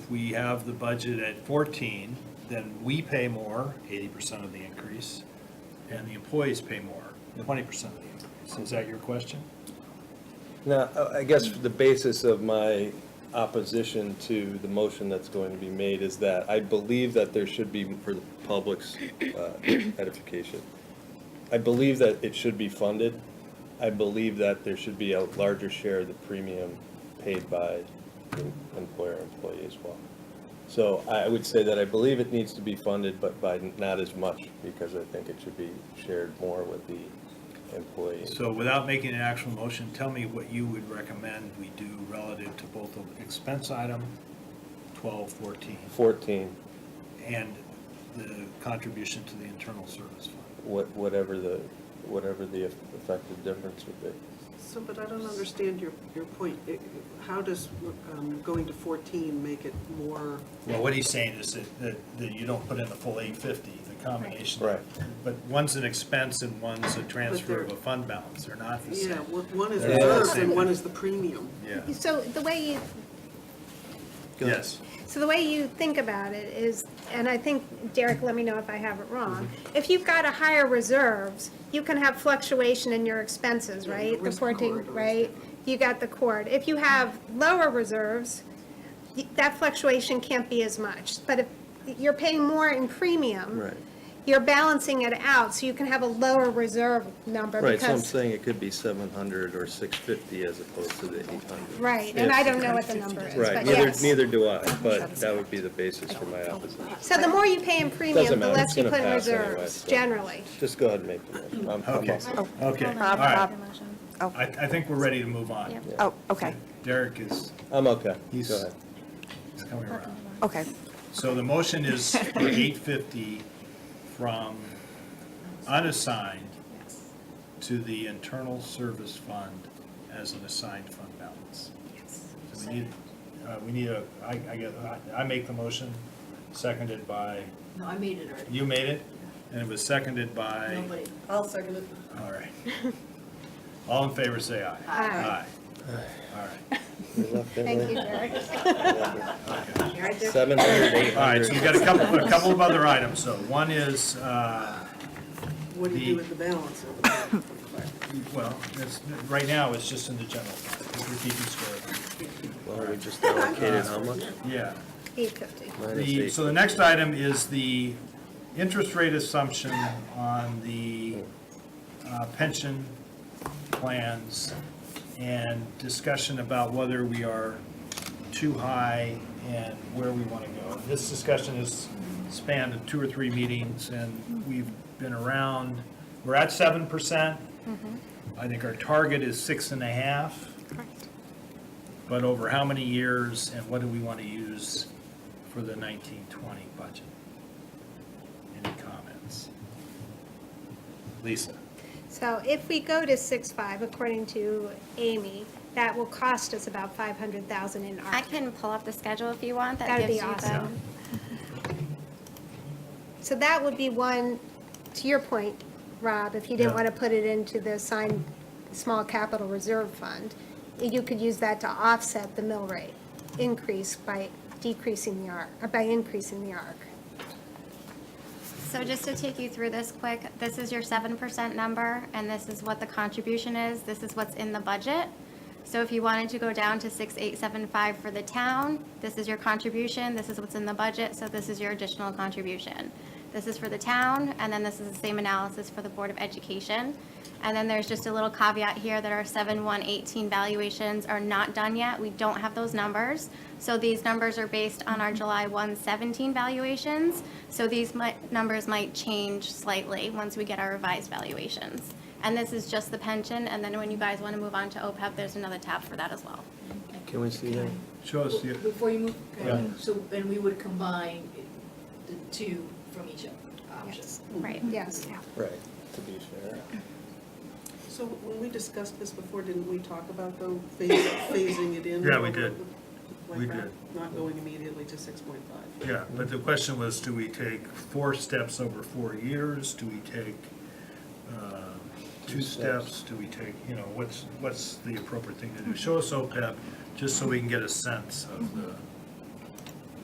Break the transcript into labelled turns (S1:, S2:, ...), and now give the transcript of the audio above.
S1: we have the budget at fourteen, then we pay more, eighty percent of the increase, and the employees pay more, twenty percent of the increase. Is that your question?
S2: Now, uh, I- I guess the basis of my opposition to the motion that's going to be made is that I believe that there should be, for the public's uh, edification, I believe that it should be funded. I believe that there should be a larger share of the premium paid by the employer employee as well. So I would say that I believe it needs to be funded, but by not as much, because I think it should be shared more with the employee.
S1: So without making an actual motion, tell me what you would recommend we do relative to both the expense item 12, 14,
S2: 14.
S1: and the contribution to the internal service fund.
S2: what, whatever the, whatever the effective difference would be.
S3: So, but I don't understand your, your point. It- How does um, going to 14 make it more,
S1: Well, what he's saying is that, that, that you don't put in the full 850, the combination.
S2: Right.
S1: But one's an expense and one's a transfer of a
S3: they're-
S1: fund balance, they're not the
S3: yeah,
S1: same.
S3: one one is
S1: They're
S2: not the
S3: reserves and
S1: same.
S3: one is the premium?
S1: Yeah,
S4: So the way you,
S1: yes.
S4: so the way you think about it is, and I think, Derek, let me know if I have it wrong.
S2: Mm-hmm.
S4: If you've got a higher reserves, you can have fluctuation in your expenses,
S3: Yeah,
S4: right?
S3: your
S4: The
S3: risk
S4: fourteen,
S3: corridor is
S4: right? You got the cord. If you have lower reserves, y- that fluctuation can't be as much. But if you're paying more in premium.
S2: Right.
S4: You're balancing it out, so you can have a lower reserve number
S2: Right, so I'm
S4: because,
S2: saying it could be 700 or 650 as opposed to the 800.
S4: right, and I don't know what the number is,
S2: Right,
S4: but
S2: neither,
S4: yes.
S2: neither do I, but that would be the basis for my opposition.
S4: So the more you pay in
S2: Doesn't
S4: premium, the
S2: matter,
S4: less
S2: it's
S4: you
S2: gonna
S4: put in
S2: pass anyway,
S4: reserves,
S2: so.
S4: generally.
S2: Just go ahead and make the motion. I'm- I'm
S1: Okay,
S2: all set.
S1: okay, all
S5: Bob,
S1: right.
S5: Bob.
S1: I, I think we're ready to move on.
S4: Yeah.
S5: Oh, okay,
S1: Derek is,
S2: I'm okay,
S1: He's-
S2: go ahead.
S1: is coming around.
S5: okay.
S1: So the motion is for 850 from unassigned to the internal service fund as an assigned fund balance. So we need, uh, we need a, I, I guess, I- I make the motion, seconded by,
S6: No, I made it already.
S1: you made it, and it was seconded by,
S6: Nobody. I'll second it.
S1: all right. All in favor, say aye.
S4: Aye.
S1: Aye. All right.
S2: We left it
S4: Thank you,
S2: right?
S4: Derek.
S6: Right there.
S2: 700,
S1: All right, so we've
S2: 800.
S1: got a couple, a couple of other items, though. One is, uh,
S3: What do you do
S1: The-
S3: with the balance?
S1: Well, it's, right now, it's just in the general fund, because we're keeping score.
S2: Well, we just allocated how much?
S1: Yeah.
S4: Eight fifty.
S2: Minus
S1: The, so the next item is the interest rate assumption on the uh, pension plans and discussion about whether we are too high and where we want to go. This discussion has spanned two or three meetings, and we've been around, we're at seven percent. I think our target is six and a half. But over how many years, and what do we want to use for the nineteen twenty budget? Any comments? Lisa?
S4: So if we go to six-five, according to Amy, that will cost us about five hundred thousand in
S7: I
S4: ARPA.
S7: can pull up the schedule if you want. That
S4: That'd be
S7: gives you the.
S4: awesome. So that would be one, to your point, Rob, if you didn't
S1: Yeah.
S4: want to put it into the assigned small capital reserve fund, you could use that to offset the mill rate increase by decreasing the arc, or by increasing the arc.
S7: So just to take you through this quick, this is your seven percent number, and this is what the contribution is. This is what's in the budget. So if you wanted to go down to six eight seven five for the town, this is your contribution, this is what's in the budget, so this is your additional contribution. This is for the town, and then this is the same analysis for the Board of Education. And then there's just a little caveat here that our seven one eighteen valuations are not done yet. We don't have those numbers. So these numbers are based on our July 1 17 valuations. So these might, numbers might change slightly once we get our revised valuations. And this is just the pension, and then when you guys want to move on to OPEB, there's another tab for that as well.
S2: Can we see that?
S1: Show us the,
S6: Before you move,
S1: Yeah.
S6: so, and we would combine the two from each option.
S4: Yes.
S7: Right.
S4: Yes.
S2: Right, to be fair.
S3: So when we discussed this before, didn't we talk about though phas- phasing it in?
S1: Yeah, we did.
S3: Like
S1: We
S3: that?
S1: did.
S3: Not going immediately to 6.5?
S1: yeah, but the question was, do we take four steps over four years? Do we take uh, two
S2: Two steps.
S1: steps? Do we take, you know, what's, what's the appropriate thing to do? Show us OPEB, just so we can get a sense of the